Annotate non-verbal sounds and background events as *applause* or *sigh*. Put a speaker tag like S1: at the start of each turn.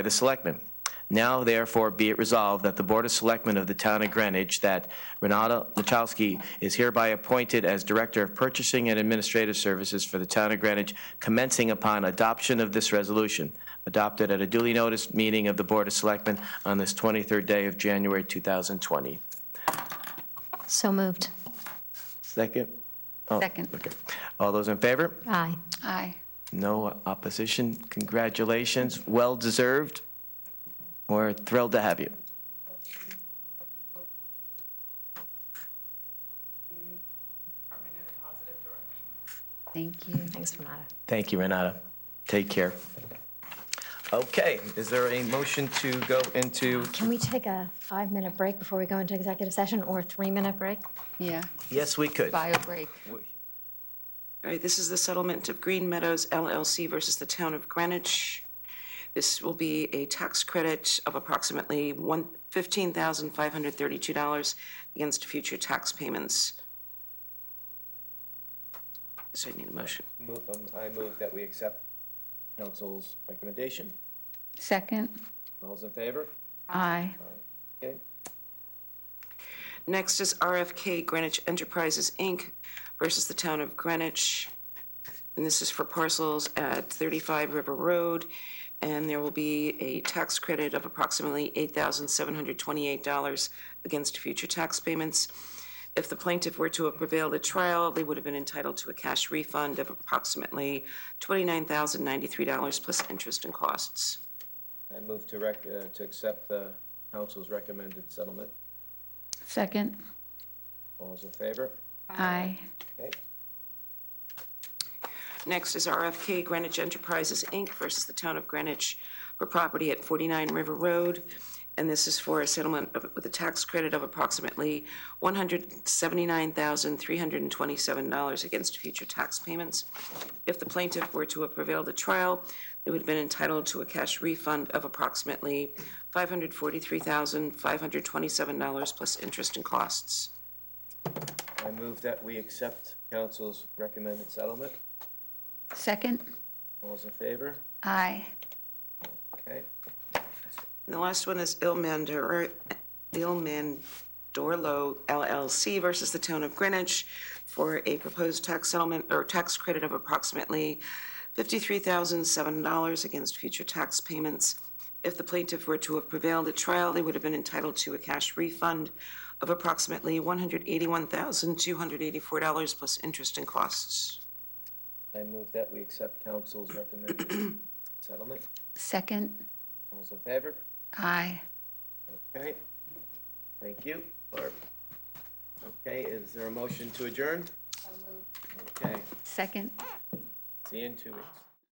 S1: by the Selectmen. Now therefore be it resolved that the Board of Selectmen of the Town of Greenwich, that Renata Lachowski is hereby appointed as Director of Purchasing and Administrative Services for the Town of Greenwich, commencing upon adoption of this resolution, adopted at a duly noticed meeting of the Board of Selectmen on this 23rd day of January 2020.
S2: So moved.
S1: Second?
S3: Second.
S1: All those in favor?
S2: Aye.
S3: Aye.
S1: No opposition. Congratulations. Well deserved. We're thrilled to have you.
S3: Thank you.
S2: Thanks, Renata.
S1: Thank you, Renata. Take care. Okay, is there a motion to go into?
S2: Can we take a five-minute break before we go into executive session, or a three-minute break?
S3: Yeah,
S1: Yes, we could.
S3: bio break.
S4: All right, this is the settlement of Green Meadows LLC versus the Town of Greenwich. This will be a tax credit of approximately one, fifteen thousand five hundred thirty-two dollars against future tax payments. So I need a motion.
S1: I move that we accept council's recommendation.
S3: Second?
S1: All's in favor?
S3: Aye.
S1: Okay.
S4: Next is RFK Greenwich Enterprises, Inc. versus the Town of Greenwich. And this is for parcels at 35 River Road. And there will be a tax credit of approximately $8,728 against future tax payments. If the plaintiff were to have prevailed at trial, they would have been entitled to a cash refund of approximately $29,093 plus interest and costs.
S5: I move to rec, uh, to accept the council's recommended settlement.
S3: Second?
S5: All those in favor?
S3: Aye.
S5: Okay.
S4: Next is RFK Greenwich Enterprises, Inc. versus the Town of Greenwich for property at 49 River Road. And this is for a settlement of- with a tax credit of approximately $179,327 against future tax payments. If the plaintiff were to have prevailed at trial, they would have been entitled to a cash refund of approximately $543,527 plus interest and costs.
S5: I move that we accept council's recommended settlement.
S3: Second?
S5: All those in favor?
S3: Aye.
S5: Okay.
S4: And the last one is Ilmandor, Ilmandorlo LLC versus the Town of Greenwich for a proposed tax settlement or tax credit of approximately $53,007 against future tax payments. If the plaintiff were to have prevailed at trial, they would have been entitled to a cash refund of approximately $181,284 plus interest and costs.
S5: I move that we accept council's recommended *coughs* settlement.
S3: Second?
S5: All those in favor?
S3: Aye.
S5: Okay. Thank you, Barb. Okay, is there a motion to adjourn? Okay,
S3: Second?
S5: see you in two weeks.